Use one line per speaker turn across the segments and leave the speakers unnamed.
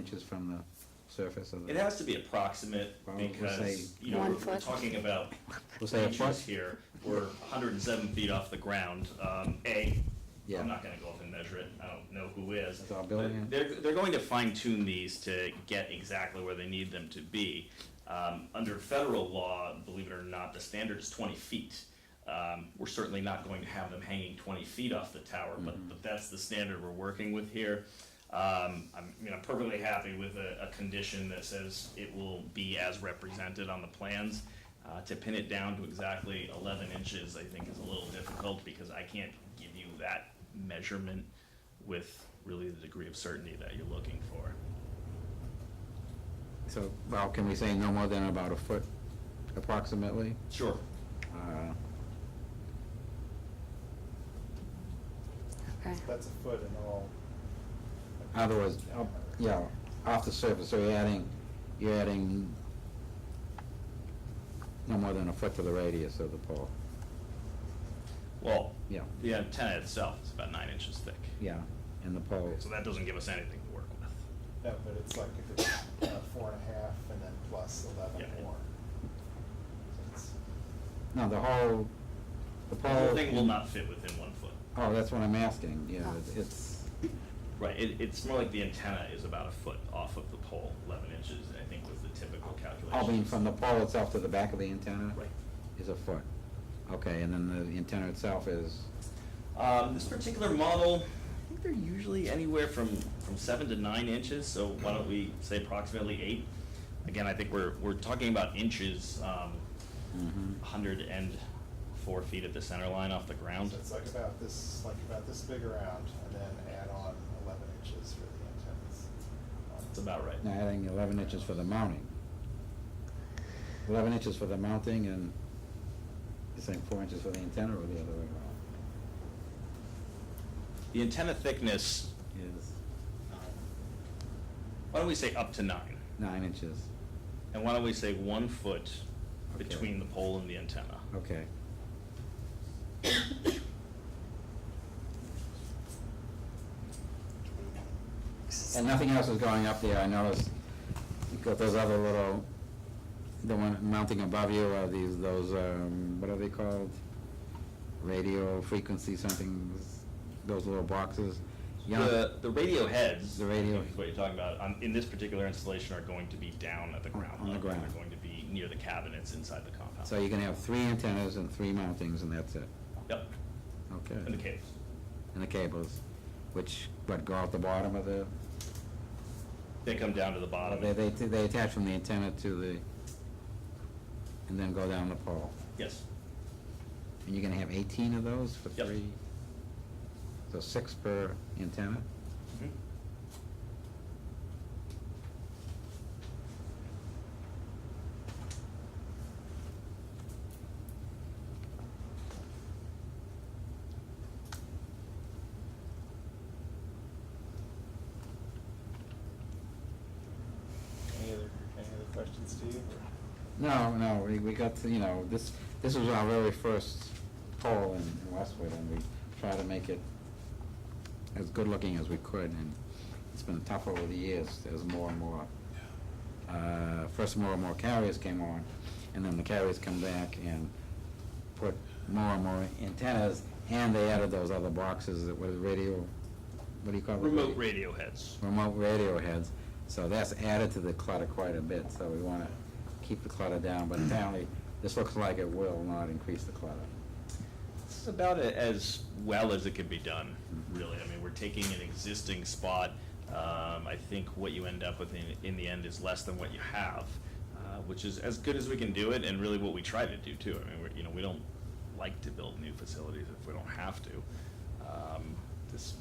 inches from the surface of
It
the,
has to be approximate
Well, we'll
because,
say-
you know,
One
we're- we're
foot.
talking about
we'll say a
inches
foot.
here. We're 107 feet off the ground. Um, A,
Yeah.
I'm not gonna go up and measure it. I don't know who is.
It's our
But
building.
They're, they're going to fine tune these to get exactly where they need them to be. Um, Under federal law, believe it or not, the standard is 20 feet. Um, We're certainly not going to have them hanging 20 feet off the tower, but, but that's the standard we're working with here. Um, I'm, you know, perfectly happy with a, a condition that says it will be as represented on the plans. Uh, to pin it down to exactly eleven inches, I think is a little difficult because I can't give you that measurement with really the degree of certainty that you're looking for.
So, well, can we say no more than about a foot approximately?
Sure.
Uh,
Okay,
That's a foot in all.
Otherwise, up- yeah, off the surface, so you're adding, you're adding no more than a foot to the radius of the pole.
Well,
Yeah,
the antenna itself is about nine inches thick,
yeah, and the pole,
so that doesn't give us anything to work with.
No, but it's like if it's uh, four and a half and then plus eleven
Yeah.
more. So it's-
no, the whole, the
The
pole.
whole thing will not fit within one foot.
Oh, that's what I'm asking, yeah,
Oh.
it's,
Right, it, it's more like the antenna is about a foot off of the pole, eleven inches, I think was the typical calculation.
I mean, from the pole itself to the back of the antenna?
Right.
Is a foot. Okay, and then the antenna itself is,
Um, this particular model, I think they're usually anywhere from, from seven to nine inches, so why don't we say approximately eight? Again, I think we're, we're talking about inches, um,
mhm.
hundred and four feet at the center line off the ground.
So it's like about this, like about this big around and then add on eleven inches for the antennas. Um,
That's about right.
Now adding eleven inches for the mounting. Eleven inches for the mounting and you're saying four inches for the antenna or the other way around?
The antenna thickness,
Is
why don't we say up to nine?
nine inches,
And why don't we say one foot
Okay.
between the pole and the antenna?
okay. And nothing else is going up there, I noticed, you've got those other little, the one mounting above you are these, those, um, what are they called? Radio frequency something, those little boxes. You know-
The, the radio heads.
The radio-
Is what you're talking about, on, in this particular installation are going to be down at the ground.
On the
level.
ground.
They're going to be near the cabinets inside the compound.
So you're gonna have three antennas and three mountings and that's it,
Yep,
okay?
in the caves.
And the cables, which, what, go out the bottom of the,
They come down to the bottom.
they, they, they attach from the antenna to the, and then go down the pole.
Yes,
And you're gonna have eighteen of those for
Yep.
three? So six per antenna?
Mhm.
Any other, any other questions, Steve?
No, no, we, we got, to, you know, this, this was our very first poll in in Westwood, and we tried to make it as good-looking as we could, and it's been tough over the years, there's more and more. Uh, first, more and more carriers came on, and then the carriers come back and put more and more antennas, and they added those other boxes that was radio, what do you call it?
remote radio heads.
remote radio heads, so that's added to the clutter quite a bit, so we wanna keep the clutter down, but apparently, this looks like it will not increase the clutter.
This is about a- as well as it could be done, really. I mean, we're taking an existing spot. Um, I think what you end up with in, in the end is less than what you have, uh, which is as good as we can do it and really what we try to do too. I mean, we're, you know, we don't like to build new facilities if we don't have to. Um, this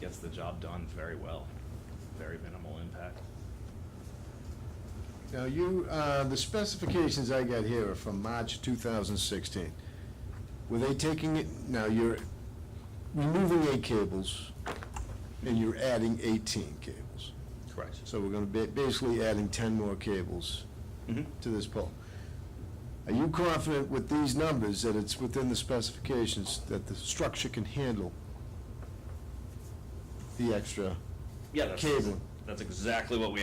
gets the job done very well, very minimal impact.
Now, you, uh, the specifications I got here are from March 2016. Were they taking it, now you're removing eight cables and you're adding 18 cables.
Correct.
So we're going to be basically adding 10 more cables
Mhm.
to this pole. Are you confident with these numbers that it's within the specifications that the structure can handle the extra
Yeah, that's,
Cable.
that's exactly what we